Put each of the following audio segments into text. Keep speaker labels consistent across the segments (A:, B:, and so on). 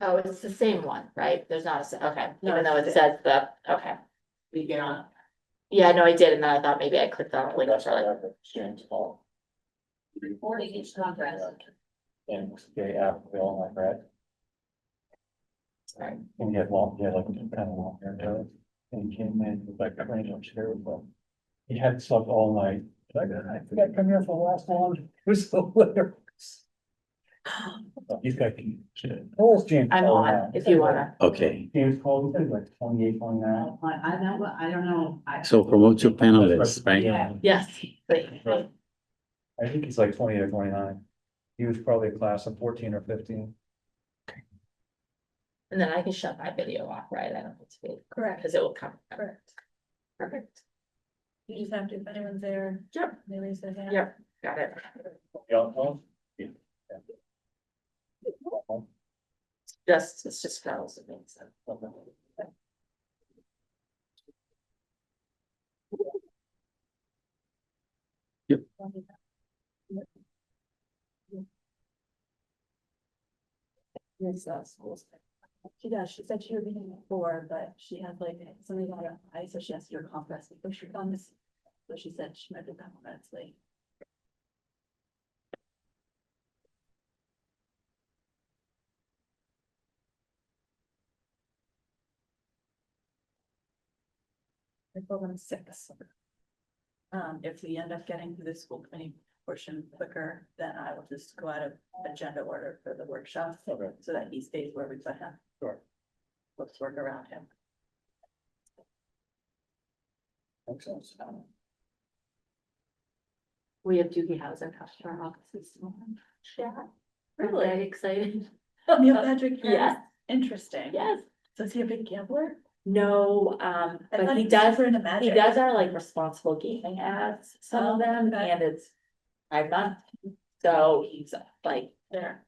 A: Oh, it's the same one, right? There's not a, se- okay,
B: No,
A: even though it
B: it's-
A: says the, okay.
B: We get on.
A: Yeah, no, I did, and then I thought maybe I clicked on a link
C: That's
A: for like,
C: our exchange call.
B: Forty each contract.
C: And they have Bill and I read.
A: Right.
C: And he had long, he had like kind of long hair does. And he came in with like a crane on chair with him. He had slept all night. He's like, I think I come here for the last one. It was so hilarious. He's got. Paul's James.
A: I'm
C: Paul
A: on,
C: now.
A: if you wanna.
D: Okay,
C: James Paul, he's like twenty-eight, twenty-nine.
B: I, I don't, I don't know. I-
D: so promote your panelists, right?
B: Yeah.
A: Yes, wait.
C: Right. I think he's like twenty or twenty-nine. He was probably a class of fourteen or fifteen.
A: And then I can shut my video off, right? I don't need to be,
E: Correct,
A: because it will come.
E: correct.
A: Perfect.
E: You just have to, if anyone's there,
A: Yep,
E: they raise their hand.
A: yep, got it.
C: Yeah. well,
A: Just, it's just girls. it makes sense.
E: Yes, that's cool. uh, She does, she said she would be here before, but she had like something on her eye, so she has to do a compress before she comes. So she said she might be a couple minutes late. I told them six. Um, if we end up getting through the school committee portion quicker, then I will just go out of agenda order for the workshop,
C: Okay.
E: so that he stays where we put him.
C: Sure.
E: Let's work around him.
C: Makes sense.
A: We have Doogie Housing come to our offices tomorrow. Yeah.
E: Really?
A: Really excited.
E: Neil Patrick Harris,
A: Yes.
E: interesting.
A: Yes,
E: So is he a big gambler?
A: no, um,
E: I
A: but
E: thought
A: he does
E: for in a magic.
A: He does our like responsible gaming ads, some of
E: Oh,
A: them,
E: okay.
A: and it's five months, so he's like,
E: There.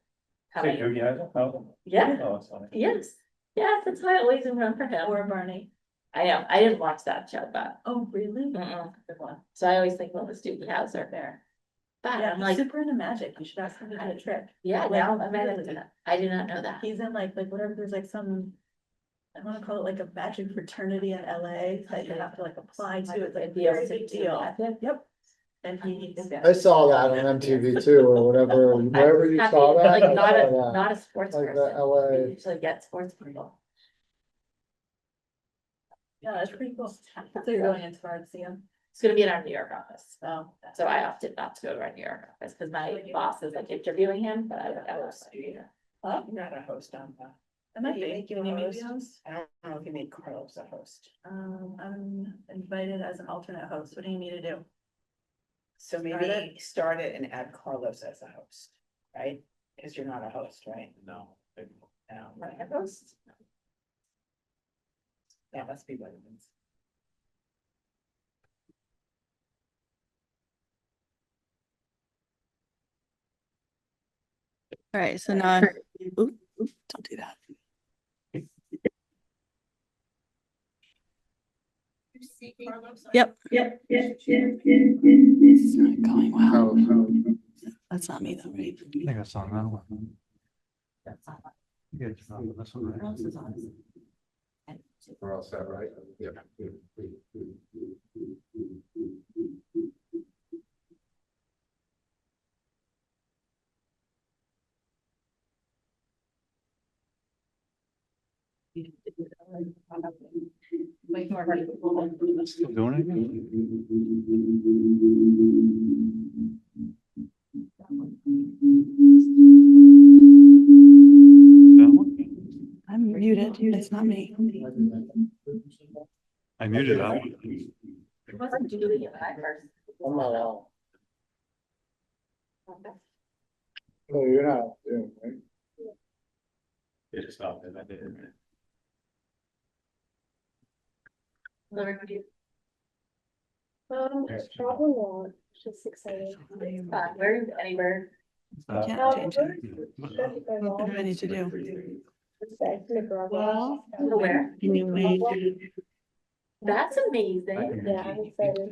A: having,
C: Hey, Doogie, I don't know.
A: yeah,
C: Oh, it's funny.
A: yes. Yes, that's why I always remember him,
E: Or Barney.
A: I know, I didn't watch that show, but,
E: Oh, really?
A: mm-mm.
E: Good one.
A: so I always think, well, the Doogie Howser,
E: There.
A: but
E: Yeah,
A: I'm
E: he's
A: like,
E: super into magic. You should ask him to do a trick.
A: yeah,
E: like,
A: now I'm at
E: really?
A: it, I did not know that.
E: He's in like, like whatever, there's like some. I wanna call it like a magic fraternity in LA that you have to like apply to. It's like a
A: Be able
E: very
A: to
E: big
A: do
E: deal.
A: that.
E: Yep. And he.
F: I saw that on MTV too, or whatever, wherever you
A: Happy,
F: saw that.
A: Like,
F: I
A: not a,
F: saw that.
A: not a sports
F: Like the
A: person,
F: LA.
A: We usually get sports people.
E: Yeah, that's pretty cool. So you're going into hard to see him.
A: It's gonna be in our New York office,
E: So.
A: so I opted not to go to our New York office, because my boss is like interviewing him, but I would, I was.
B: Huh? You're not a host on that.
E: Am I
B: Can you
E: being,
B: make you
E: can you
B: a
E: make me
B: host?
E: host?
B: I don't know if you made Carlos a host.
E: Um, I'm invited as an alternate host. What do you need to do?
B: So maybe start it and add Carlos as a host, right? Cause you're not a host, right? Um,
C: No.
B: No.
A: Right, I was-
B: That must be what it means.
G: All right, so now, I'm- oop, oop, don't do that. Yep. This is not going well. That's not me though, right?
C: I think I saw another one.
E: That's not mine.
C: Good. This one, right?
E: What else is on this?
H: We're all set, right? Yeah.
C: Still doing it again? That one?
G: I'm muted. It's not me.
C: I muted that one.
A: It wasn't Julie and I first.
F: I'm not out. No, Oh, you're not. out, yeah, right?
C: It stopped and I did.
I: Um, probably not, just excited.
A: Uh, where is anywhere?
C: Uh,
G: Can't
E: Um,
G: change it. What do I
I: Well.
G: need to do?
I: Nicaragua.
A: Where?
G: Can you wait?
A: That's amazing.
I: Yeah, I'm excited.